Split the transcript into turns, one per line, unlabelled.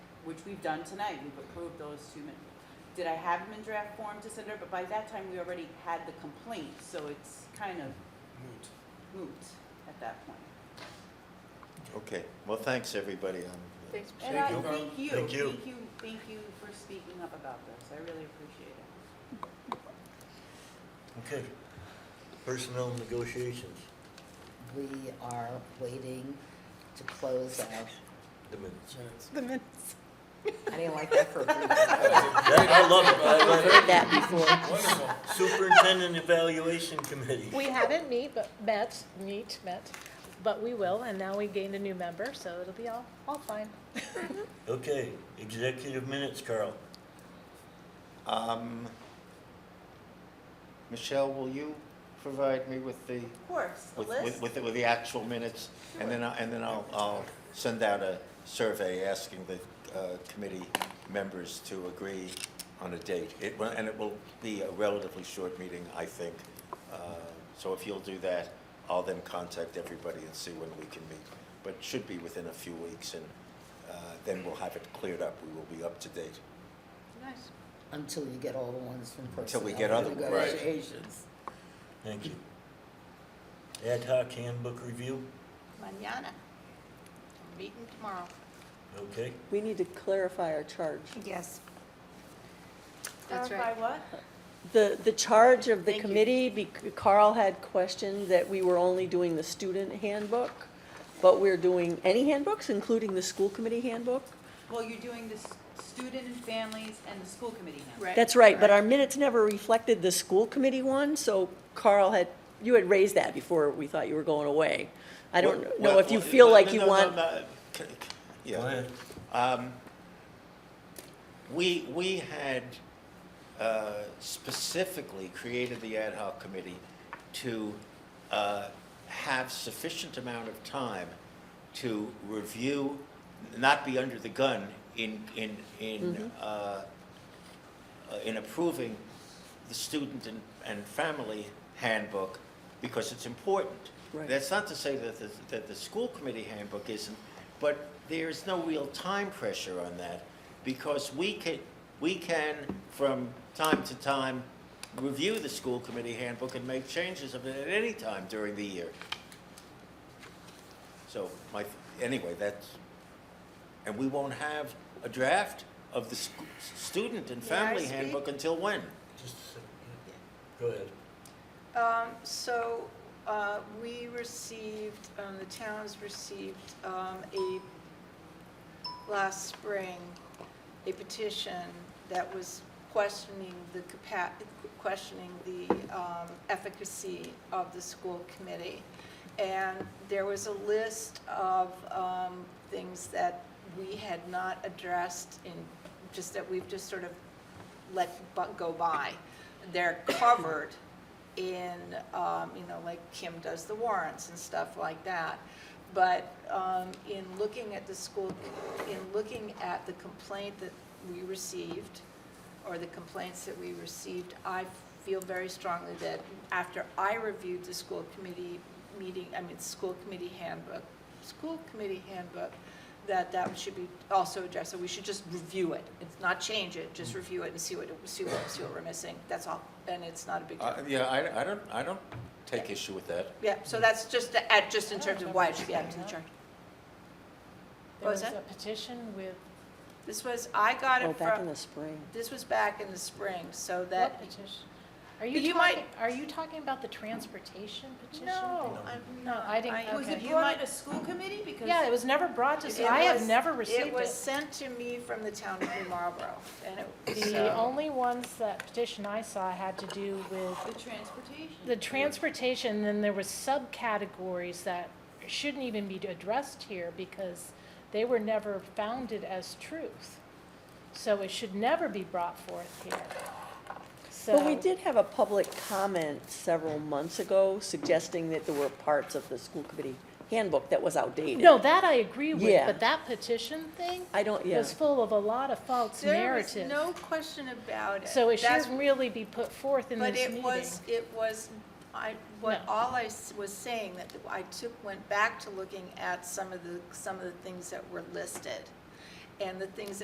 which we've done tonight, we've approved those two minutes. Did I have them in draft form to send her, but by that time, we already had the complaint, so it's kind of
Moot.
moot at that point.
Okay, well, thanks, everybody. Um,
Thanks,
And
Thank
I
you.
thank you,
Thank
thank
you.
you, thank you for speaking up about this, I really appreciate it.
Okay, personnel negotiations,
We are waiting to close out.
the minutes.
Minutes.
I didn't like that for a brief.
Right, I love it, I love
Heard that before.
That's Wonderful.
it. Superintendent Evaluation Committee.
We haven't meet, but met, meet, met, but we will, and now we gained a new member, so it'll be all, all fine.
Okay, executive minutes, Carl. Um, Michelle, will you provide me with the,
Of course, the
with,
list.
with, with the- with the actual minutes? And then, I- and then I'll, I'll send out a survey asking the, uh, committee members to agree on a date. It, will- and it will be a relatively short meeting, I think. Uh, So if you'll do that, I'll then contact everybody and see when we can meet. But it should be within a few weeks, and, uh, then we'll have it cleared up. We will be up to date.
Nice.
Until you get all the ones from personnel.
Until we get other- right.
Negotiations.
Thank you. Ad hoc handbook review,
Manana. Meeting tomorrow.
okay.
We need to clarify our charge.
Yes.
That's
Clarify what?
The, the charge of the
Thank you.
committee, bec- Carl had questioned that we were only doing the student handbook, but we're doing any handbooks, including the school committee handbook?
Well, you're doing the s- student and families and the school committee now.
Right.
That's right, but our minutes never reflected the school committee one, so Carl had, you had raised that before we thought you were going away. I don't know if you feel like you want,
Go ahead. Um, We, we had uh, specifically created the ad hoc committee to uh, have sufficient amount of time to review, not be under the gun in, in, in, uh, uh, in approving the student and, and family handbook because it's important.
Right.
That's not to say that the, that the school committee handbook isn't, but there's no real time pressure on that because we can, we can from time to time review the school committee handbook and make changes of it at any time during the year. So my, anyway, that's, and we won't have a draft of the sc- student and
May I
family
speak?
handbook until when? Go ahead.
Um, so, uh, we received, um, the towns received, um, a, last spring, a petition that was questioning the capa, questioning the, um, efficacy of the school committee. And there was a list of, um, things that we had not addressed in, just that we've just sort of let bu- go by. They're covered in, um, you know, like Kim does the warrants and stuff like that. But um, in looking at the school, in looking at the complaint that we received, or the complaints that we received, I feel very strongly that after I reviewed the school committee meeting, I mean, school committee handbook, school committee handbook, that that should be also addressed, So we should just review it, it's not change it, just review it and see what, see what, see what we're missing, that's all, and it's not a big deal.
Uh, yeah, I, I don't, I don't take issue with that.
Yeah, so that's just, the- at, just in terms of why it should be added to the chart.
There
What was
was
that?
a petition with,
This was, I got
oh,
it
back in
from,
the spring.
this was back in the spring, so
what
that,
petition? Are
But
you
you might-
talking, are you talking about the transportation petition?
no, I'm
No,
not.
I didn't-
I-
Was it
Okay.
brought at a school committee? Because
Yeah, it was never brought to,
It
I have
was-
never received it.
It was sent to me from the town of New Marlboro, and it,
The
so,
only ones that petition I saw had to do with
The transportation.
The transportation, then there was subcategories that shouldn't even be addressed here because they were never founded as truth. So it should never be brought forth here. So.
But we did have a public comment several months ago suggesting that there were parts of the school committee handbook that was outdated.
No, that I agree with,
Yeah.
but that petition thing
I don't, yeah.
was full of a lot of false
there was
narrative.
no question about it.
So it
That's-
should really be put forth in this
But
meeting.
it was, it was, I, what,
No.
all I s- was saying, that I took, went back to looking at some of the, some of the things that were listed, and the things that